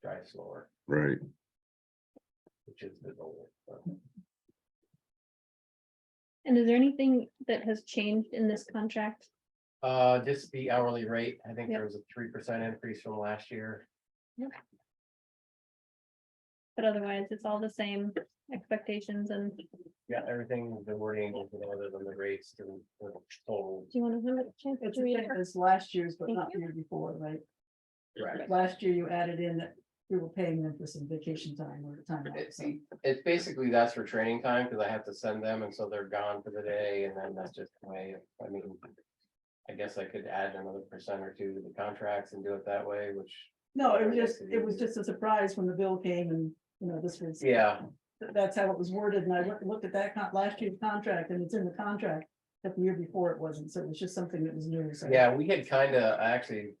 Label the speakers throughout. Speaker 1: drive slower,
Speaker 2: right?
Speaker 1: which is the goal. so.
Speaker 3: And is there anything that has changed in this contract?
Speaker 1: Uh, just the hourly rate, I think
Speaker 3: Yep.
Speaker 1: there was a three percent increase from last year.
Speaker 3: But otherwise, it's all the same expectations and do
Speaker 1: Yeah, everything, the wording, you know, other than the rates, the the total.
Speaker 3: you want to have a chance
Speaker 4: It's
Speaker 3: to
Speaker 4: the
Speaker 3: read
Speaker 4: same
Speaker 3: it?
Speaker 4: as last year's, but
Speaker 3: Thank
Speaker 4: not the
Speaker 3: you.
Speaker 4: year before, right?
Speaker 1: Right.
Speaker 4: Last year you added in that we were paying them for some vacation time or time off, so.
Speaker 1: It's basically that's for training time, because I have to send them, and so they're gone for the day, and then that's just the way, I mean. I guess I could add another percent or two to the contracts and do it that way, which,
Speaker 4: No, it was just, it was just a surprise when the bill came and, you know, this was,
Speaker 1: yeah,
Speaker 4: that's how it was worded, and I looked, looked at that con, last year's contract, and it's in the contract. But the year before it wasn't, so it was just something that was new, so.
Speaker 1: yeah, we had kind of, actually.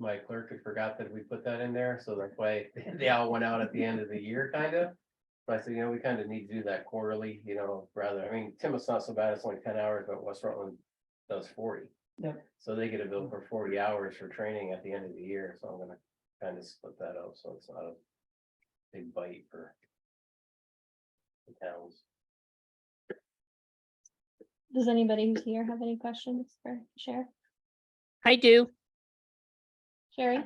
Speaker 1: My clerk had forgot that we put that in there, so that's why they all went out at the end of the year, kind of. But I said, you know, we kind of need to do that quarterly, you know, rather, I mean, Timoth's not so bad, it's only ten hours, but West Rutland does forty.
Speaker 4: Yep.
Speaker 1: So they get a bill for forty hours for training at the end of the year, so I'm gonna kind of split that up, so it's not a big bite for. The towns.
Speaker 3: Does anybody who's here have any questions for Sheriff?
Speaker 5: I do.
Speaker 3: Sherry?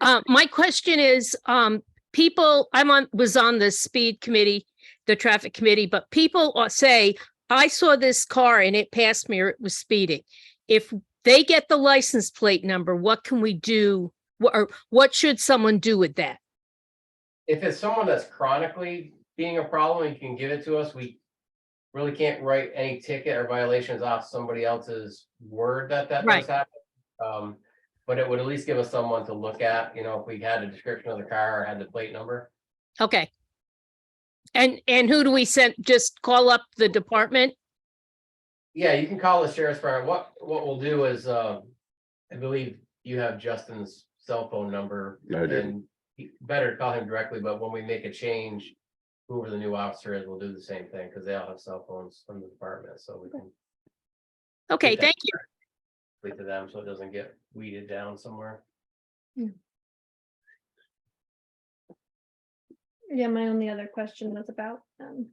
Speaker 5: Uh, my question is, um, people, I'm on, was on the speed committee, the traffic committee, but people are- say, I saw this car and it passed me or it was speeding. If they get the license plate number, what can we do? Wha- Or what should someone do with that?
Speaker 1: if it's someone that's chronically being a problem and can give it to us, we really can't write any ticket or violations off somebody else's word that that
Speaker 5: Right.
Speaker 1: does happen. Um, but it would at least give us someone to look at, you know, if we had a description of the car or had the plate number.
Speaker 5: Okay. And, and who do we send? Just call up the department?
Speaker 1: Yeah, you can call the sheriff's department. What, what we'll do is, um, I believe you have Justin's cell phone number.
Speaker 2: I do.
Speaker 1: And you better call him directly, but when we make a change, whoever the new officer is will do the same thing, because they all have cell phones from the department, so we can
Speaker 5: Okay,
Speaker 1: Okay.
Speaker 5: thank you.
Speaker 1: lead to them so it doesn't get weeded down somewhere.
Speaker 3: Yeah, my only other question was about um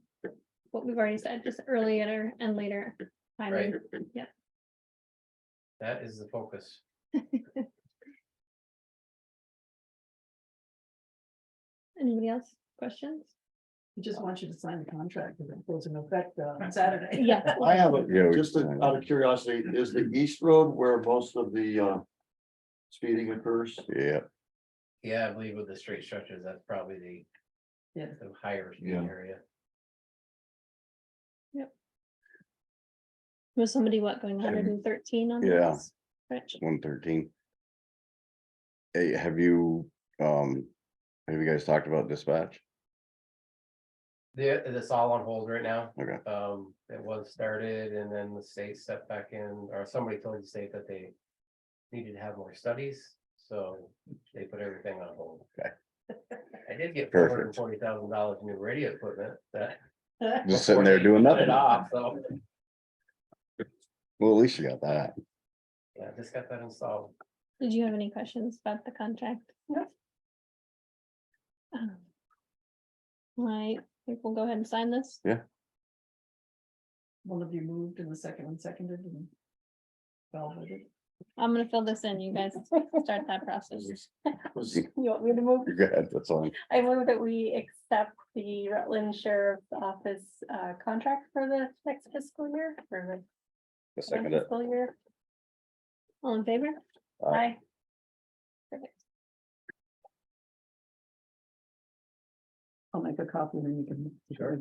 Speaker 3: what we've already said, just earlier and later. timing.
Speaker 1: Right.
Speaker 3: yeah.
Speaker 1: That is the focus.
Speaker 3: Anybody else? Questions?
Speaker 4: We just want you to sign the contract, because it goes in effect uh, on Saturday.
Speaker 3: Yeah.
Speaker 6: I have
Speaker 2: Yeah,
Speaker 6: a,
Speaker 2: we
Speaker 6: just
Speaker 2: can. uh,
Speaker 6: out of curiosity, is the east road where most of the uh. Speeding occurs?
Speaker 2: Yeah,
Speaker 1: Yeah, I believe with the straight structures, that's probably the
Speaker 4: Yeah.
Speaker 1: the higher speed
Speaker 6: Yeah.
Speaker 1: area.
Speaker 3: Was somebody what going hundred and thirteen on?
Speaker 2: Yeah.
Speaker 3: this stretch?
Speaker 2: one thirteen. Hey, have you, um, have you guys talked about dispatch?
Speaker 1: There, that's all on hold right now.
Speaker 2: Okay.
Speaker 1: Um, it was started and then the state stepped back in, or somebody told the state that they needed to have more studies, so they put everything on hold.
Speaker 2: Okay.
Speaker 1: I did get four
Speaker 2: Perfect.
Speaker 1: hundred and forty thousand dollars new radio equipment that.
Speaker 2: Just sitting there doing
Speaker 1: before they
Speaker 2: nothing.
Speaker 1: shut off, So,
Speaker 2: Well, at least you got that.
Speaker 1: yeah, just got that installed.
Speaker 3: Did you have any questions about the contract?
Speaker 4: No.
Speaker 3: Um, I think we'll go ahead and sign this.
Speaker 4: One of you moved and the second one seconded and. Val voted.
Speaker 3: I'm gonna fill this in, you guys start that process.
Speaker 6: Was-
Speaker 2: You
Speaker 3: You want me to move?
Speaker 2: got that's on.
Speaker 3: I move that we accept the Rutland Sheriff's Office uh contract for the next fiscal year for
Speaker 2: I
Speaker 3: the
Speaker 2: second
Speaker 3: next
Speaker 2: it.
Speaker 3: fiscal year. All in favor?
Speaker 2: Aye.
Speaker 3: Perfect.
Speaker 4: I'll make a copy and then you can.
Speaker 1: Sure.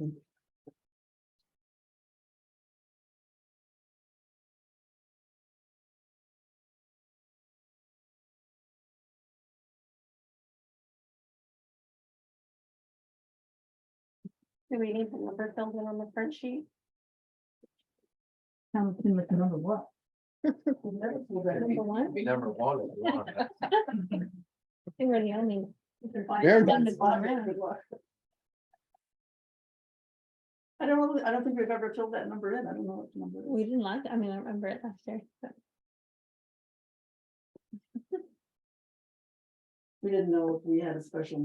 Speaker 3: Do we need the number filled in on the front sheet?
Speaker 4: Town can make another what?
Speaker 3: Number one?
Speaker 1: Number one. if you want.
Speaker 3: I think we're the only.
Speaker 2: Very
Speaker 4: I don't know, I don't think we've ever filled that number in, I don't know what the number is.
Speaker 3: We didn't like, I mean, I remember it last year. but
Speaker 4: We didn't know if we had a special